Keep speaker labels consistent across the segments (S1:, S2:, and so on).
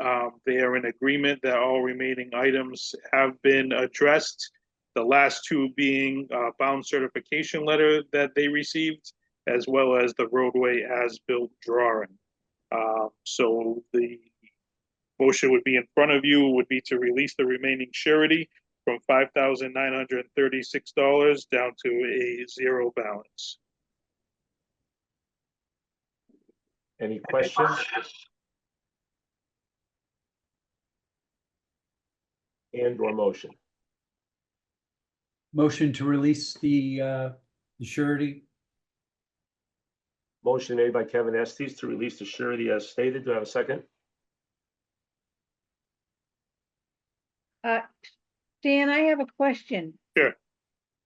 S1: Um, They are in agreement that all remaining items have been addressed. The last two being uh, bound certification letter that they received, as well as the roadway as-built drawing. Uh, So the motion would be in front of you, would be to release the remaining surety from five thousand nine hundred and thirty-six dollars down to a zero balance.
S2: Any questions? And or motion?
S3: Motion to release the uh the surety.
S2: Motion made by Kevin Estes to release the surety as stated. Do I have a second?
S4: Uh, Dan, I have a question.
S1: Sure.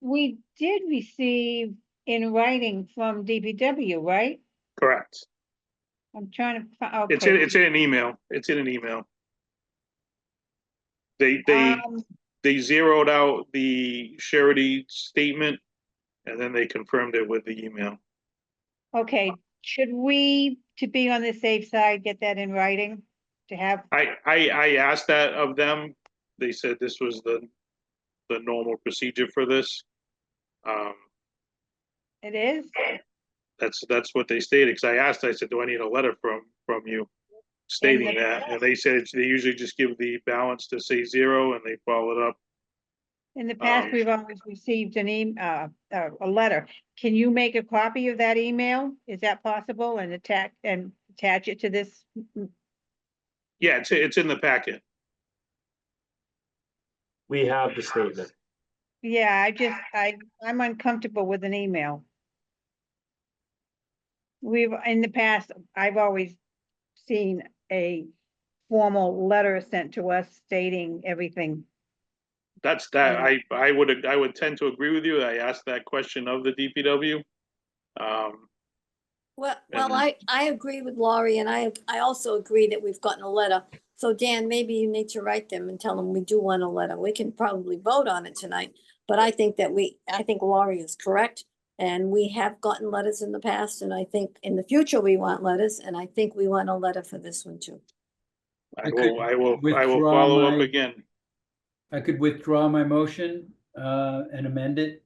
S4: We did receive in writing from DBW, right?
S1: Correct.
S4: I'm trying to. fi-
S1: It's in,
S4: okay.
S1: it's in an email. It's in an email. They, they,
S4: Um,
S1: they zeroed out the surety statement and then they confirmed it with the email.
S4: Okay, should we, to be on the safe side, get that in writing? To have,
S1: I, I, I asked that of them. They said this was the, the normal procedure for this. Um,
S4: it is?
S1: that's, that's what they stated, because I asked, I said, do I need a letter from, from you stating
S4: they-
S1: that? And they said, it's- they usually just give the balance to say zero and they follow it up.
S4: In the past,
S1: Um,
S4: we've always received an e, uh, uh, a letter. Can you make a copy of that email? Is that possible and attach, and attach it to this?
S1: Yeah, it's, it's in the packet.
S2: We have the statement.
S4: Yeah, I just, I, I'm uncomfortable with an email. We've, in the past, I've always seen a formal letter sent to us stating everything.
S1: That's that, I,
S4: Yeah.
S1: I would, I would tend to agree with you. I asked that question of the DPW. Um,
S5: Well, well,
S1: And-
S5: I, I agree with Laurie and I, I also agree that we've gotten a letter. So Dan, maybe you need to write them and tell them we do want a letter. We can probably vote on it tonight. But I think that we, I think Laurie is correct. And we have gotten letters in the past and I think in the future we want letters and I think we want a letter for this one too.
S1: I
S3: I could
S1: will, I will, I will
S3: withdraw
S1: follow up
S3: my-
S1: again.
S3: I could withdraw my motion uh and amend it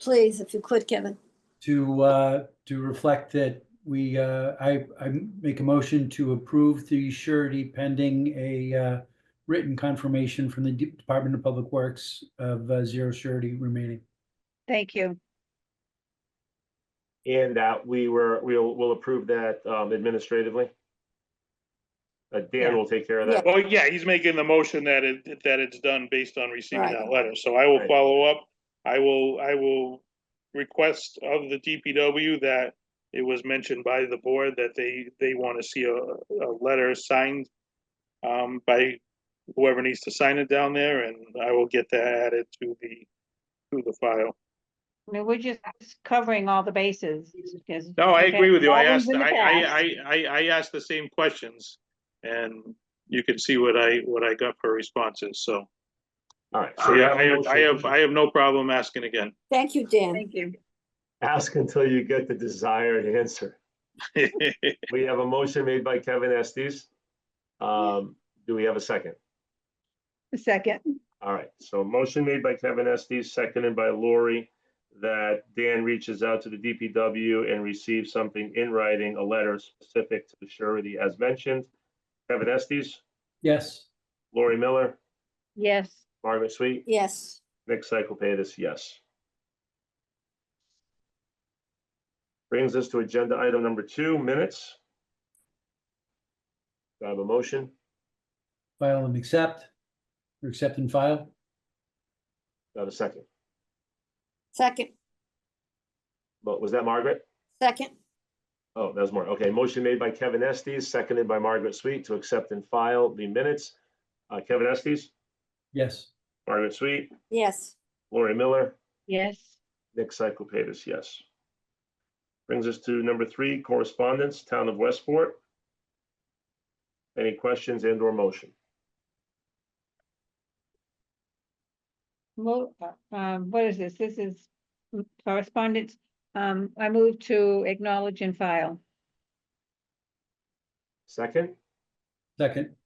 S5: Please, if you could, Kevin.
S3: to uh to reflect that we uh I I make a motion to approve the surety pending a uh written confirmation from the De- Department of Public Works of uh, zero surety remaining.
S4: Thank you.
S2: And that we were, we'll, we'll approve that um, administratively. Uh, Dan will take care of that.
S1: Well, yeah, he's making the motion that it, that it's done based on receiving
S5: Right.
S1: that letter, so I will
S2: Right.
S1: follow up. I will, I will request of the DPW that it was mentioned by the board that they, they want to see a, a letter signed um, by whoever needs to sign it down there, and I will get that added to the, to the file.
S4: I mean, we're just covering all the bases. because-
S1: No, I
S4: okay,
S1: agree with you. I
S4: problems
S1: asked,
S4: in
S1: I,
S4: the
S1: I,
S4: past.
S1: I, I, I asked the same questions, and you can see what I, what I got for responses, so.
S2: All right.
S1: So
S2: we
S1: yeah,
S2: have a
S1: I have, I have,
S2: motion.
S1: I have no problem asking again.
S5: Thank you, Dan.
S4: Thank you.
S2: Ask until you get the desired answer. We have a motion made by Kevin Estes. Um, Do we have a second?
S4: A Second,
S2: All right, so motion made by Kevin Estes, seconded by Lori, that Dan reaches out to the DPW and receives something in writing, a letter specific to the surety as mentioned. Kevin Estes,
S3: Yes.
S2: Lori Miller,
S4: yes.
S2: Margaret Sweet,
S5: Yes.
S2: Nick Cyclepatis, yes. Brings us to agenda item number two, minutes. Do I have a motion?
S3: File and accept. Or accept and file.
S2: Do I have a second?
S5: Second,
S2: But was that Margaret?
S5: second.
S2: Oh, that was more. Okay, motion made by Kevin Estes, seconded by Margaret Sweet to accept and file the minutes. Uh, Kevin Estes,
S3: Yes.
S2: Margaret Sweet,
S5: Yes.
S2: Lori Miller,
S4: Yes,
S2: Nick Cyclepatis, yes. Brings us to number three, correspondence, Town of Westport. Any questions and or motion?
S4: Mo- uh, um, what is this? This is correspondence. Um, I move to acknowledge and file.
S2: Second,
S3: Second.